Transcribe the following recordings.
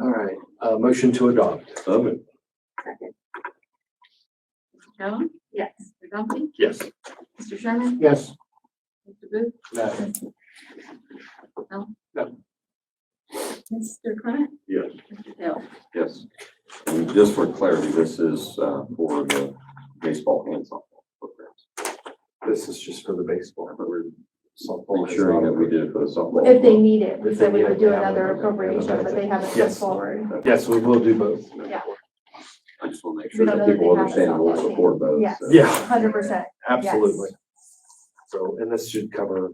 All right, uh, motion to adopt. So moved. Second. Joan? Yes. Mr. Dumpy? Yes. Mr. Sherman? Yes. Mr. Booth? No. No? No. Mr. Clement? Yes. Mr. Taylor? Yes. And just for clarity, this is uh, for the baseball and softball programs. This is just for the baseball. We're softball. ensuring that we did it for the softball. If they need it, we If they said we need would it, do they have another another- appropriation, but they haven't come Yes. forward. Yes, we will do both. Yeah. I just want to make We sure don't that know that people they have understand and will softball support those. uh, Yes. so. Yeah, Hundred percent, absolutely. So, and this should cover,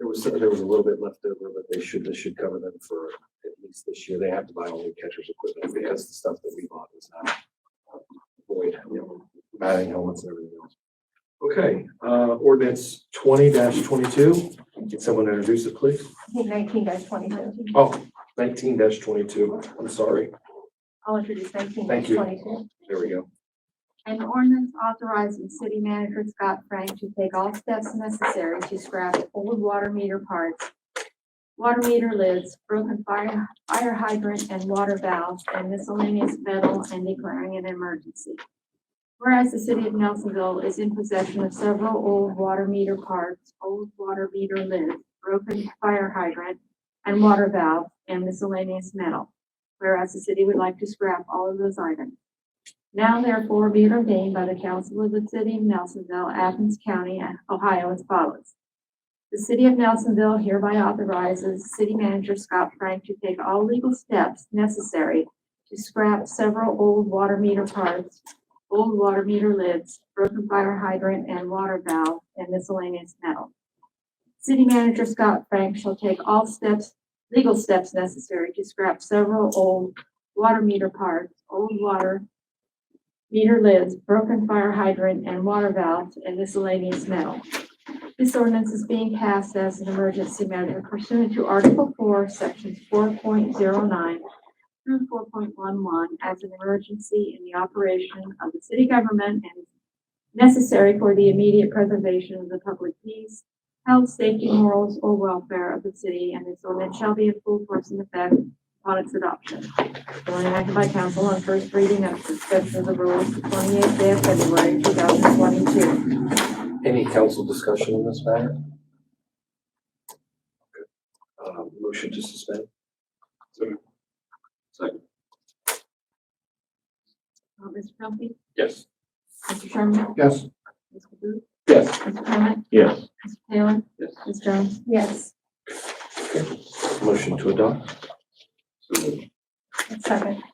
there was, there was a little bit left over, but they should, this should cover them for at least this year. They have to buy all new catcher's equipment because the stuff that we bought is not uh, void, you know, batting helmets and everything else. Okay, uh, ordinance twenty twenty-two. Can someone introduce it, please? I think nineteen dash twenty-two, Oh, nineteen dash twenty-two. I'm sorry. I'll introduce nineteen dash Thank you. twenty-two. There we go. An ordinance authorizing city manager Scott Frank to take all steps necessary to scrap old water meter parts, water meter lids, broken fire, fire hydrant and water valves, and miscellaneous metal and declaring an emergency. Whereas the city of Nelsonville is in possession of several old water meter parts, old water meter lids, broken fire hydrant, and water valve, and miscellaneous metal. Whereas the city would like to scrap all of those items. Now therefore be it ordained by the council of the city of Nelsonville, Athens County, Ohio as follows. The city of Nelsonville hereby authorizes city manager Scott Frank to take all legal steps necessary to scrap several old water meter parts, old water meter lids, broken fire hydrant and water valve, and miscellaneous metal. City manager Scott Frank shall take all steps, legal steps necessary to scrap several old water meter parts, old water meter lids, broken fire hydrant, and water valves, and miscellaneous metal. This ordinance is being passed as an emergency measure pursuant to Article Four, Sections four point zero nine through four point one one as an emergency in the operation of the city government and necessary for the immediate preservation of the public peace, health, safety, morals, or welfare of the city, and this ordinance shall be in full force and effect upon its adoption. Duly enacted by council on first reading of suspension of the rules the twenty-eighth day of February, two thousand twenty-two. Any council discussion on this matter? Uh, motion to suspend? Second. Uh, Mr. Dumpy, Yes. Mr. Sherman, Yes. Mr. Booth, Yes. Mr. Clement, Yes. Mr. Taylor, Yes. Ms. Jones. Yes, Motion to adopt? So moved. second,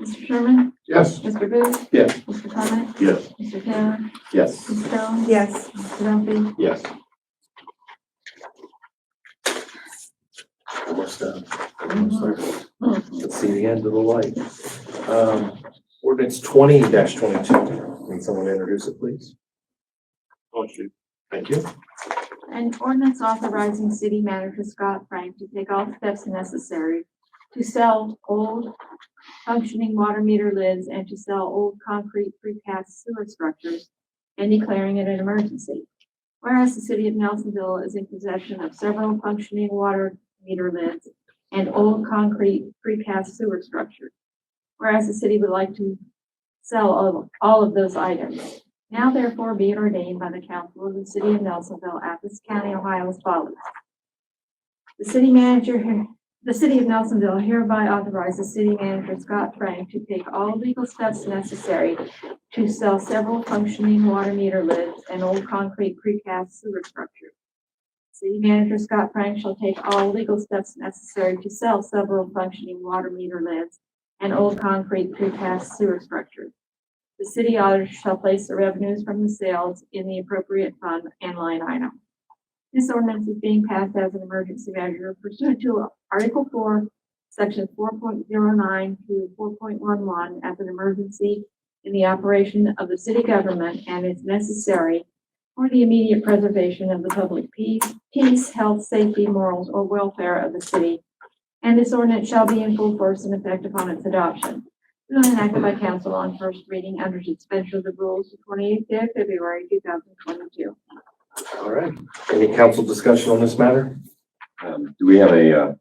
Mr. Sherman, Yes. Mr. Booth. Yes. Mr. Clement, Yes. Mr. Taylor, Yes. Ms. Jones. yes, Mr. Dumpy, Yes. Almost done. Almost there. Let's see the end of the light. Um, ordinance twenty twenty-two. Can someone introduce it, please? Oh, Thank you. An ordinance authorizing city manager Scott Frank to take all steps necessary to sell old functioning water meter lids and to sell old concrete precast sewer structures and declaring it an emergency. Whereas the city of Nelsonville is in possession of several functioning water meter lids and old concrete precast sewer structures. Whereas the city would like to sell all- all of those items. Now therefore be it ordained by the council of the city of Nelsonville, Athens County, Ohio as follows. The city manager, here- the city of Nelsonville hereby authorizes city manager Scott Frank to take all legal steps necessary to sell several functioning water meter lids and old concrete precast sewer structures. City manager Scott Frank shall take all legal steps necessary to sell several functioning water meter lids and old concrete precast sewer structures. The city auditor shall place the revenues from the sales in the appropriate fund and line item. This ordinance is being passed as an emergency measure pursuant to Article four, Section four point zero nine to four point one one as an emergency in the operation of the city government and is necessary for the immediate preservation of the public peace, peace, health, safety, morals, or welfare of the city. And this ordinance shall be in full force and effect upon its adoption. Bill enacted by council on first reading under suspension of the rules the twenty-eighth day of February, two thousand twenty-two. All right. Any council discussion on this matter? Um, Do we have a uh,